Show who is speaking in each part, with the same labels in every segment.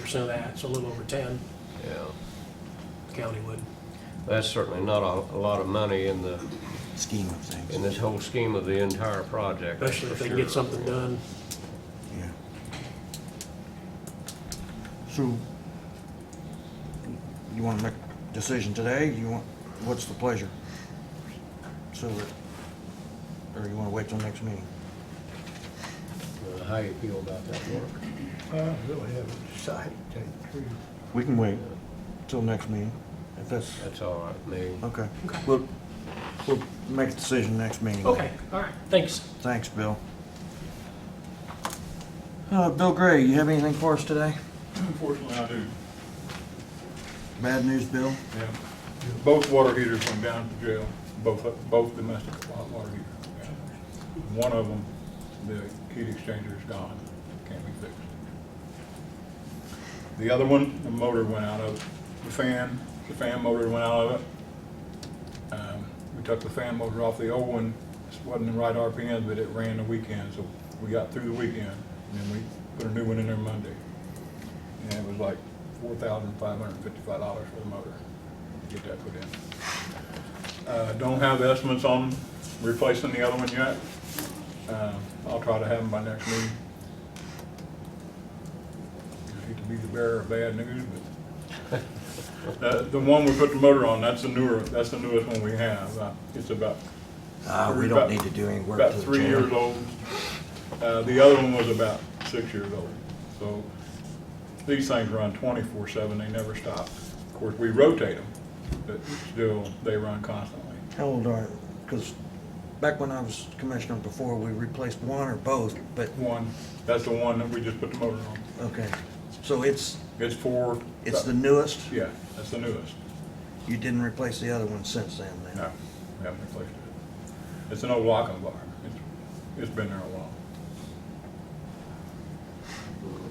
Speaker 1: percent of that, so a little over ten,
Speaker 2: yeah.
Speaker 1: county would.
Speaker 2: That's certainly not a, a lot of money in the,
Speaker 3: scheme of things.
Speaker 2: in this whole scheme of the entire project. that's
Speaker 1: Especially if
Speaker 2: for
Speaker 1: they can get
Speaker 2: sure.
Speaker 1: something done.
Speaker 3: Yeah. So, you want to make a decision today? You want, what's the pleasure? So, that- or you want to wait till next meeting?
Speaker 2: Uh, How you feel about that work?
Speaker 4: I really haven't decided to tell you the truth.
Speaker 3: We can wait. Till next meeting, if that's,
Speaker 2: That's all right, with me.
Speaker 3: okay.
Speaker 1: Okay.
Speaker 3: We'll, we'll make a decision next meeting.
Speaker 1: Okay, all right, thanks.
Speaker 3: Thanks, Bill. Uh, Bill Gray, you have anything for us today?
Speaker 5: Unfortunately, I do.
Speaker 3: Bad news, Bill?
Speaker 5: Yeah. Both water heaters went down to jail, both, both domestic wa- water heaters. went down. One of them, the heat exchanger is gone, can't be fixed. The other one, the motor went out of, the fan, the fan motor went out of it. Um, We took the fan motor off the old one, it wasn't the right RPM, but it ran the weekend, so we got through the weekend, and then we put a new one in there Monday. And it was like four thousand five hundred and fifty-five dollars for the motor to get that put in. Uh, don't have estimates on replacing the other one yet. Uh, I'll try to have them by next meeting. I hate to be the bearer of bad news, but uh, the one we put the motor on, that's the newer, that's the newest one we have. Uh, It's about
Speaker 3: Uh, we don't need to do any work to the
Speaker 5: about three
Speaker 3: jail.
Speaker 5: years old. Uh, the other one was about six years old. So these things run twenty-four seven, they never stop. Of course, we rotate them, but still, they run constantly.
Speaker 3: How old are, because back when I was commissioner before, we replaced one or both, but,
Speaker 5: One, that's the one that we just put the motor on.
Speaker 3: okay. So it's,
Speaker 5: It's for.
Speaker 3: it's the newest?
Speaker 5: Yeah, that's the newest.
Speaker 3: You didn't replace the other one since then, then?
Speaker 5: No, we haven't replaced it. It's an old locking bar. It's, it's been there a while.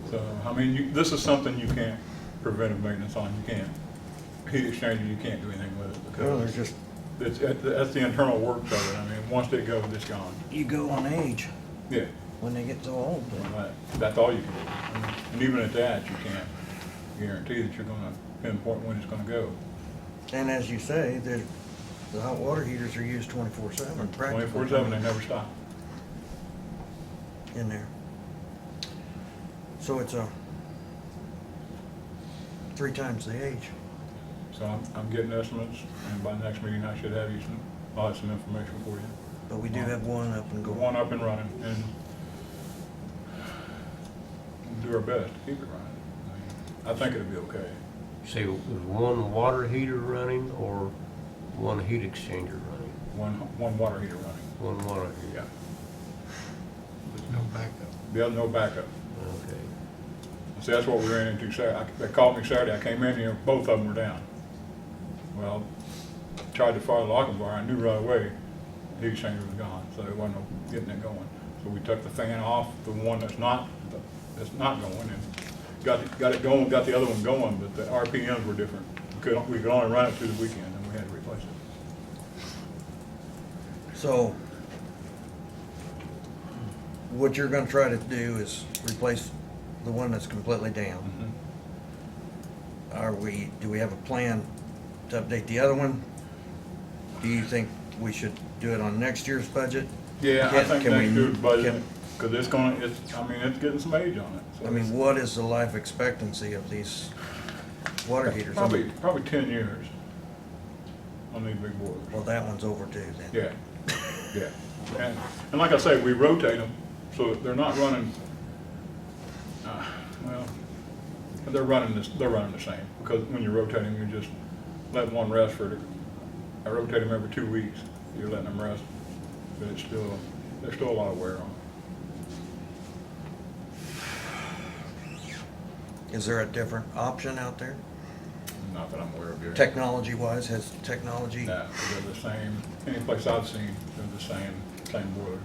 Speaker 5: So, I mean, you, this is something you can't prevent maintenance on. You can't. Heat exchanger, you can't do anything with it
Speaker 3: Well, there's
Speaker 5: because
Speaker 3: just,
Speaker 5: it's, that's the internal works of it. I mean, once they go, it's gone.
Speaker 3: you go on age
Speaker 5: Yeah,
Speaker 3: when they get so old. but-
Speaker 5: that- that's all you can do. I mean, And even at that, you can't guarantee that you're gonna pinpoint when it's gonna go.
Speaker 3: And as you say, the, the hot water heaters are used twenty-four seven practically.
Speaker 5: Twenty-four seven, they never stop.
Speaker 3: In there. So it's a, three times the age.
Speaker 5: So I'm, I'm getting estimates, and by next meeting, I should have you some, I'll have some information for you.
Speaker 3: But we do have one up and
Speaker 5: Go
Speaker 3: going.
Speaker 5: on up and running, and do our best to keep it running. I mean, I think it'll be okay.
Speaker 2: See, was one water heater running or one heat exchanger running?
Speaker 5: One, one water heater running,
Speaker 2: One water heater?
Speaker 5: yeah.
Speaker 4: There's no backup.
Speaker 5: The other, no backup.
Speaker 2: Okay.
Speaker 5: See, that's what we ran into Saturday. They called me Saturday, I came in here, both of them were down. Well, tried to fire the locking bar, I knew right away the heat exchanger was gone, so there wasn't no getting it going. So we took the fan off, the one that's not, that's not going, and got, it- got it going, got the other one going, but the RPMs were different. We could, we could only run it through the weekend, and we had to replace it.
Speaker 3: So, what you're gonna try to do is replace the one that's completely down.
Speaker 5: Mm-hmm.
Speaker 3: Are we, do we have a plan to update the other one? Do you think we should do it on next year's budget?
Speaker 5: Yeah, I
Speaker 3: Can-
Speaker 5: think
Speaker 3: can
Speaker 5: next
Speaker 3: we-
Speaker 5: year's budget,
Speaker 3: can-
Speaker 5: because it's gonna, it's, I mean, it's getting some age on it. so
Speaker 3: I mean, what is the life expectancy of these water heaters?
Speaker 5: Probably, probably ten years on these big boilers.
Speaker 3: Well, that one's overdue then.
Speaker 5: Yeah, yeah. And, and like I say, we rotate them, so they're not running, uh, well, they're running this, they're running the same. Because when you rotate them, you just let one rest for, the- I rotate them every two weeks. You're letting them rest, but it's still, there's still a lot of wear on it.
Speaker 3: Is there a different option out there?
Speaker 5: Not that I'm aware of here.
Speaker 3: Technology wise, has technology?
Speaker 5: No, they're the same, any place I've seen, they're the same, same boilers.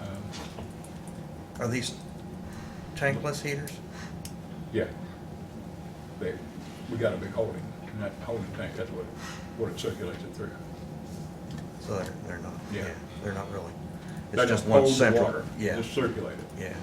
Speaker 5: Um,
Speaker 3: Are these tankless heaters?
Speaker 5: Yeah. They, we got a big holding, and that holding tank, that's what, what it circulates it through.
Speaker 3: So they're, they're not,
Speaker 5: Yeah.
Speaker 3: yeah, they're not really.
Speaker 5: That
Speaker 3: It's just
Speaker 5: holds
Speaker 3: one
Speaker 5: the
Speaker 3: central.
Speaker 5: water,
Speaker 3: Yeah,
Speaker 5: Just circulate it.
Speaker 3: yeah.